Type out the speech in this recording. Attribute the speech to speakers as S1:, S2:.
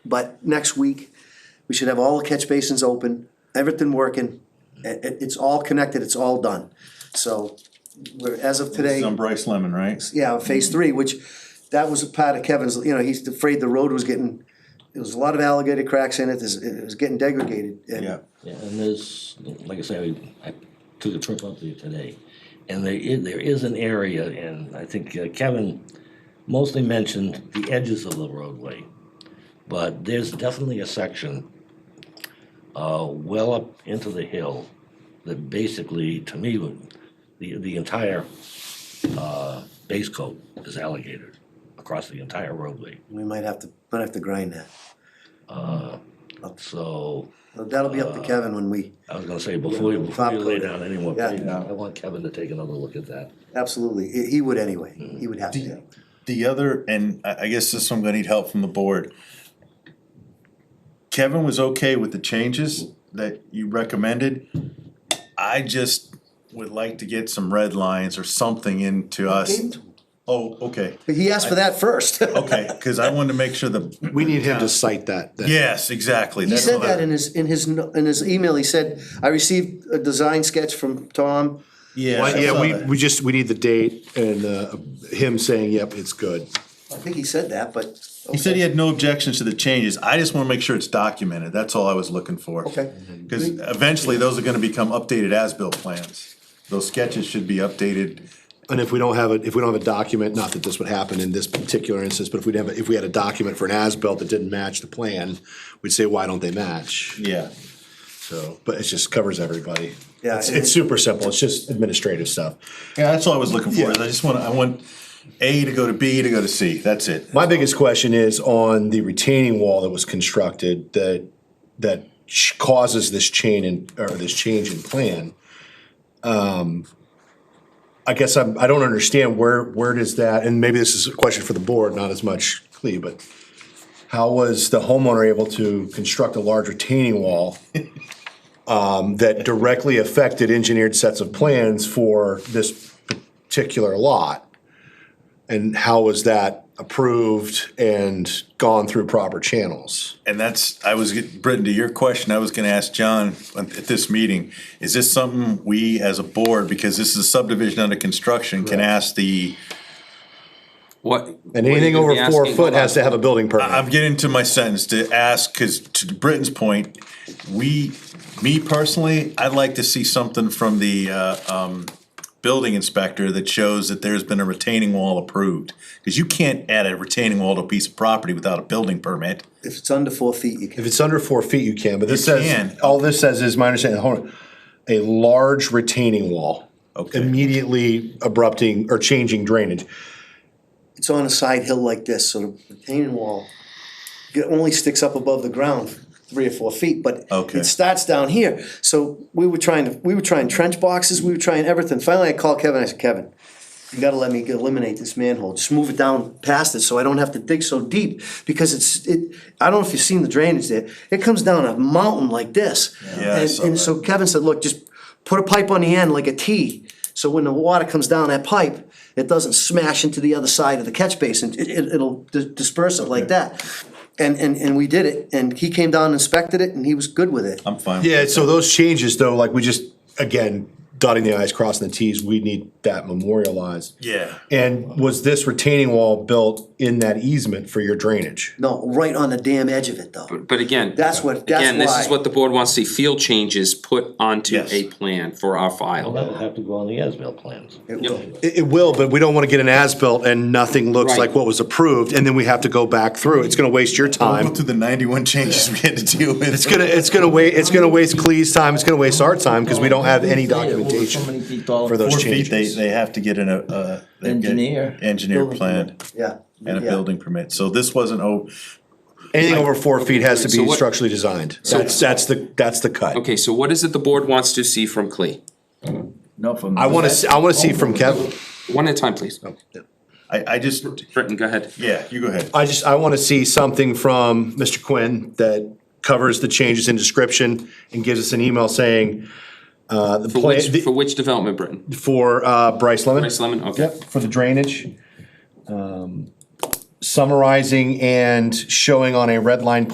S1: But next week, we should have all the catch basins open, everything working. It, it- it's all connected, it's all done. So, we're, as of today.
S2: It's on Bryce Lemon, right?
S1: yeah, phase three, which that was a part of Kevin's, you know, he's afraid the road was getting, there was a lot of alligator cracks in it, this- it was getting degraded. and-
S2: Yeah,
S3: Yeah, and there's, like I say, I, I took a trip up there today, and there is, there is an area, and I think uh, Kevin mostly mentioned the edges of the roadway, but there's definitely a section, uh, well up into the hill, that basically, to me, would- the, the entire, uh, base coat is alligator across the entire roadway.
S1: We might have to, might have to grind that.
S3: Uh, so,
S1: But That'll be
S2: Uh.
S1: up to Kevin when we,
S3: I was gonna say, before you, before
S1: top
S3: you lay
S1: coat it.
S3: down any more
S1: Yeah.
S3: pavement, I want Kevin to take another look at that.
S1: absolutely, he- he would anyway, he would have to.
S2: the other, and I, I guess this one, I'm gonna need help from the board. Kevin was okay with the changes that you recommended. I just would like to get some red lines or something into us. Oh, okay,
S1: But He asked for that first.
S2: okay, cause I wanted to make sure the,
S4: We need him to cite that. then.
S2: yes, exactly.
S1: He
S2: that's
S1: said
S2: what I-
S1: that in his, in his, no- in his email, he said, I received a design sketch from Tom.
S2: Yeah.
S4: Well,
S2: I
S4: yeah,
S2: saw
S4: we,
S2: that.
S4: we just, we need the date and, uh, him saying, yep, it's good.
S1: I think he said that, but.
S2: He said he had no objections to the changes, I just wanna make sure it's documented, that's all I was looking for.
S1: Okay.
S2: Cause eventually, those are gonna become updated as-built plans, those sketches should be updated,
S4: And if we don't have it, if we don't have a document, not that this would happen in this particular instance, but if we'd have, a- if we had a document for an as-built that didn't match the plan, we'd say, why don't they match?
S2: yeah.
S4: So, but it just covers everybody.
S1: Yeah,
S4: It's,
S1: and-
S4: it's super simple, it's just administrative stuff.
S2: Yeah, that's all I was looking for,
S4: Yeah.
S2: is I just wanna, I want A to go to B to go to C, that's it.
S4: My biggest question is on the retaining wall that was constructed that, that ch- causes this chain in, or this change in plan. Um, I guess I'm, I don't understand where, where does that, and maybe this is a question for the board, not as much Clea, but how was the homeowner able to construct a large retaining wall um, that directly affected engineered sets of plans for this particular lot? And how was that approved and gone through proper channels?
S2: And that's, I was, get- Britton, to your question, I was gonna ask John at at this meeting, is this something we as a board, because this is a subdivision under construction, can ask the,
S5: What?
S4: And
S5: what are you
S4: anything
S5: gonna
S4: over
S5: be
S4: four
S5: asking
S4: foot
S5: about?
S4: has to have a building
S2: I'm
S4: permit.
S2: getting to my sentence to ask, cause to Britton's point, we, me personally, I'd like to see something from the, uh, um, building inspector that shows that there's been a retaining wall approved. Cause you can't add a retaining wall to a piece of property without a building permit.
S1: If it's under four feet, you
S4: If
S1: can.
S4: it's under four feet, you can, but this
S2: You can.
S4: says, all this says is my understanding, hold on, a large retaining wall.
S2: Okay.
S4: Immediately abrupting or changing drainage.
S1: It's on a side hill like this, so the retaining wall, it only sticks up above the ground three or four feet, but
S2: Okay.
S1: it starts down here. So we were trying to, we were trying trench boxes, we were trying everything. Finally, I called Kevin, I said, Kevin, you gotta let me eliminate this manhole, just move it down past it so I don't have to dig so deep. Because it's, it, I don't know if you've seen the drainage there, it comes down a mountain like this.
S2: Yeah, I
S1: And-
S2: saw
S1: And
S2: that.
S1: so Kevin said, look, just put a pipe on the end like a T, so when the water comes down that pipe, it doesn't smash into the other side of the catch basin, it, it, it'll di- disperse it like that. And, and, and we did it, and he came down, and inspected it, and he was good with it.
S2: I'm fine. with
S4: Yeah,
S2: that.
S4: so those changes though, like we just, again, dotting the i's, crossing the t's, we need that memorialized.
S2: Yeah.
S4: And was this retaining wall built in that easement for your drainage?
S1: No, right on the damn edge of it though,
S5: But again.
S1: that's what, that's why.
S5: Again, this is what the board wants to see, field changes put onto
S2: Yes.
S5: a plan for our
S3: Well,
S5: file.
S3: that'll have to go on the ASBIL plans.
S1: It
S5: Yep.
S1: will.
S4: It, it will, but we don't wanna get an as-built and nothing looks
S5: Right.
S4: like what was approved, and then we have to go back through. It's gonna waste your
S2: I'll go
S4: time.
S2: through the ninety-one changes we had to deal with.
S4: It's gonna, it's gonna wa, it's gonna waste Clee's time, it's gonna waste our time, cause we don't have any documentation for
S2: Four
S4: those
S2: feet, they,
S4: changes.
S2: they have to get an, uh, uh, they get
S6: Engineer.
S2: Engineer plan
S1: Yeah.
S2: and a
S1: yeah.
S2: building permit, so this wasn't, oh,
S4: Anything over four feet has to
S5: So
S4: be
S5: what-
S4: structurally designed. That's, that's the, that's the cut.
S5: Okay, so what is it the board wants to see from Clea?
S6: No, from.
S4: I wanna, see- I wanna
S5: Oh.
S4: see from Kevin.
S5: One at a time, please.
S2: I, I just,
S5: Britton, go ahead.
S2: yeah, you go ahead.
S4: I just, I want to see something from Mr. Quinn that covers the changes in description and gives us an email saying, uh, the
S5: For
S4: plan,
S5: which, for
S4: the-
S5: which development, Britton?
S4: for, uh, Bryce Lemon.
S5: Bryce Lemon, okay.
S4: Yep, for the drainage. Um, Summarizing and showing on a red line